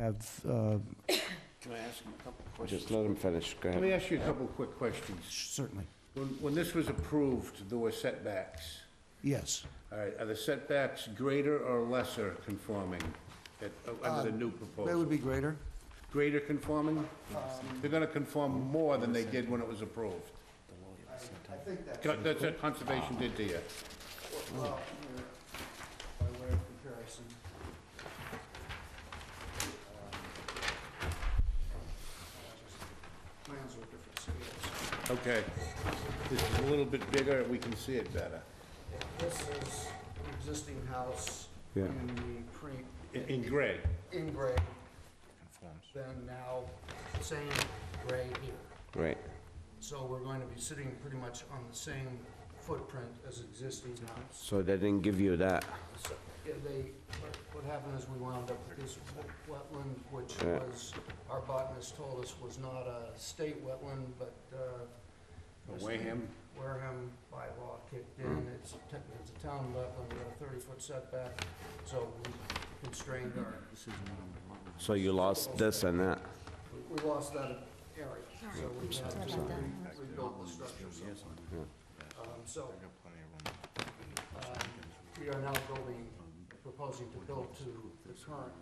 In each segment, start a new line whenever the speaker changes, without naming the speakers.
have, uh,
Can I ask him a couple of questions?
Just let him finish, go
Let
ahead.
me ask you a couple of quick questions.
certainly,
When, when this was approved, there were setbacks.
yes.
All right, are the setbacks greater or lesser conforming at, under the
That
new
Uh, would
proposal?
be greater.
Greater conforming? They're gonna conform more than they did when it was approved.
I think that's
Co- That's what conservation did to you.
well, here, by way of comparison. Um, Plans are different scales.
Okay. This is a little bit bigger, we can see it better.
This is an existing house
Yeah.
in the pre,
In, in gray.
in grade. Then now, same grade here.
Right,
So we're going to be sitting pretty much on the same footprint as existing house.
so they didn't give you that.
So, yeah, They, what- what happened is we wound up with this w- wetland, which
Yeah.
was, our botanist told us was not a state wetland, but uh,
Wareham,
Wareham bylaw kicked in. It's technically, it's a town wetland with a 30-foot setback, so we constrained our,
So you lost this and that.
we- we lost that area. So we had to re- rebuild the structure somewhere. Um, So Um, We are now building, proposing to build to the current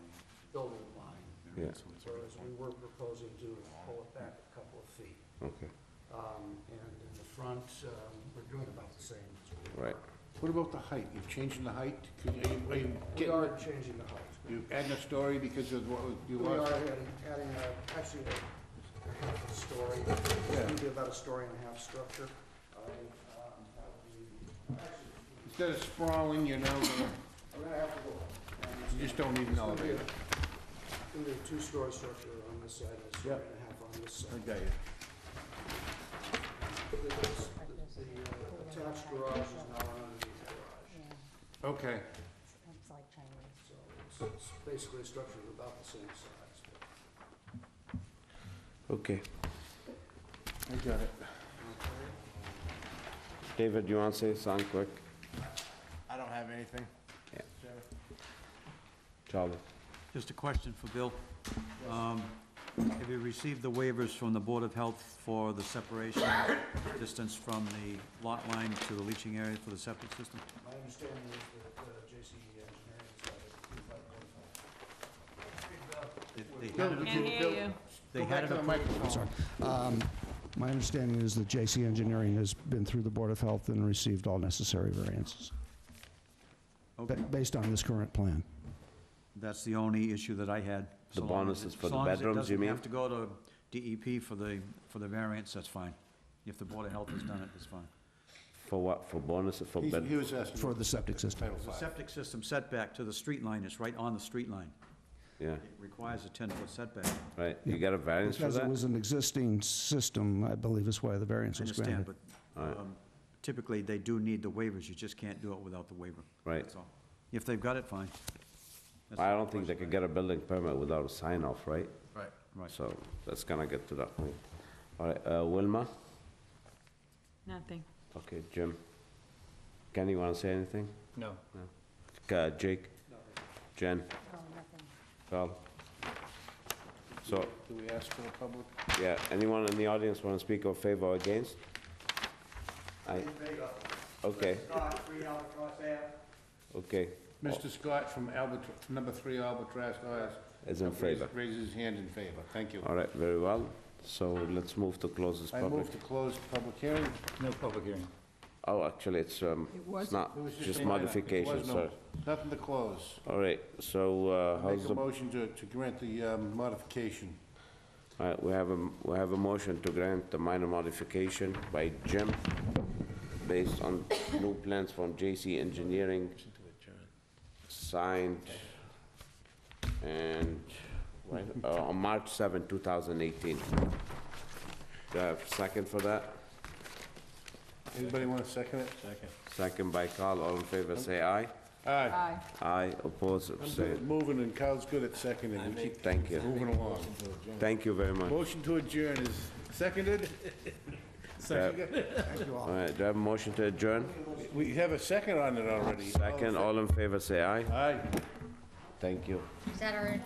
building line,
Yeah,
whereas we were proposing to pull it back a couple of feet.
okay,
Um, And in the front, um, we're doing about the same. as we were.
right.
What about the height? You've changed the height? Could- Are you, are you
We
getting,
are changing the height.
you adding a story because of what was- you
We
lost?
are adding, adding a- actually a a half a story, it's gonna be about a story and a half structure. I, um, that would be- actually,
Instead of sprawling, you're now gonna,
I'm gonna have to go. up. And it's
you just don't need an
It's gonna be
elevator.
a- gonna be a two-story structure on this side and a story
Yep.
and a half on this
I
side.
got you.
The- The the attached garage is now an underneath garage,
Okay,
It's like Chinese.
so it's- it's basically a structure of about the same size.
Okay.
I got it.
David, you want to say something quick?
I don't have anything.
Charlie?
Just a question for Bill. Um, Have you received the waivers from the Board of Health for the separation distance from the lot line to the leaching area for the septic system?
My understanding is that uh, JC Engineering is like
They- They had it,
Can't hear you.
they had it
Go back to the
approved.
microphone.
My understanding is that JC Engineering has been through the Board of Health and received all necessary variances,
Okay,
based on this current plan.
That's the only issue that I had.
The
So long
bonus
as it-
is for
so
the
long as
bedrooms, you mean?
it doesn't have to go to DEP for the, for the variance, that's fine. If the Board of Health has done it, it's fine.
For what, for bonus or for
He's- He
bed?
was asking.
For the septic system.
Title
The
five.
septic system setback to the street line is right on the street line.
Yeah,
It requires a 10-foot setback.
right, you got a variance for
Because it
that?
was an existing system, I believe is why the variance
I
was granted.
understand, but um, typically, they do need the waivers, you just can't do it without the waiver.
Right.
That's all. If they've got it, fine. That's
I don't think they could get a building permit without a sign off, right?
Right.
Right.
So that's gonna get to that point. All right, uh, Wilma?
Nothing.
Okay, Jim? Kenny, you want to say anything?
No.
Uh, Jake? Jen?
No, nothing.
Val? So,
Do we ask for a public?
yeah, anyone in the audience want to speak in favor or against? Aye. Okay, okay,
Mr. Scott from Albert, number three Albatross Glass.
is in favor. Uh,
Raises his hand in favor. Thank you.
All right, very well. So let's move to close this
I
public.
move to close public hearing.
No public hearing.
Oh, actually, it's, um, it's not,
It was
just
a minor. It
modification,
was no-
sorry.
Nothing to close.
All right, so uh, how's
Make
the,
a
all
motion to, to grant the um, modification.
right, we have a, we have a motion to grant the minor modification by Jim based on new plans from JC Engineering signed and, right, uh, on March 7, 2018. Do I have a second for that?
Anybody want to second it?
Second.
Second by Carl, all in favor, say aye.
Aye.
Aye.
Aye, opposed,
I'm good at
abstained.
moving and Kyle's good at seconding. We keep
Thank you,
moving along.
thank you very much.
Motion to adjourn is seconded? Second.
All right, do I have a motion to adjourn?
We have a second on it already.
Second, all in favor, say aye.
Aye.
Thank you.
Is that our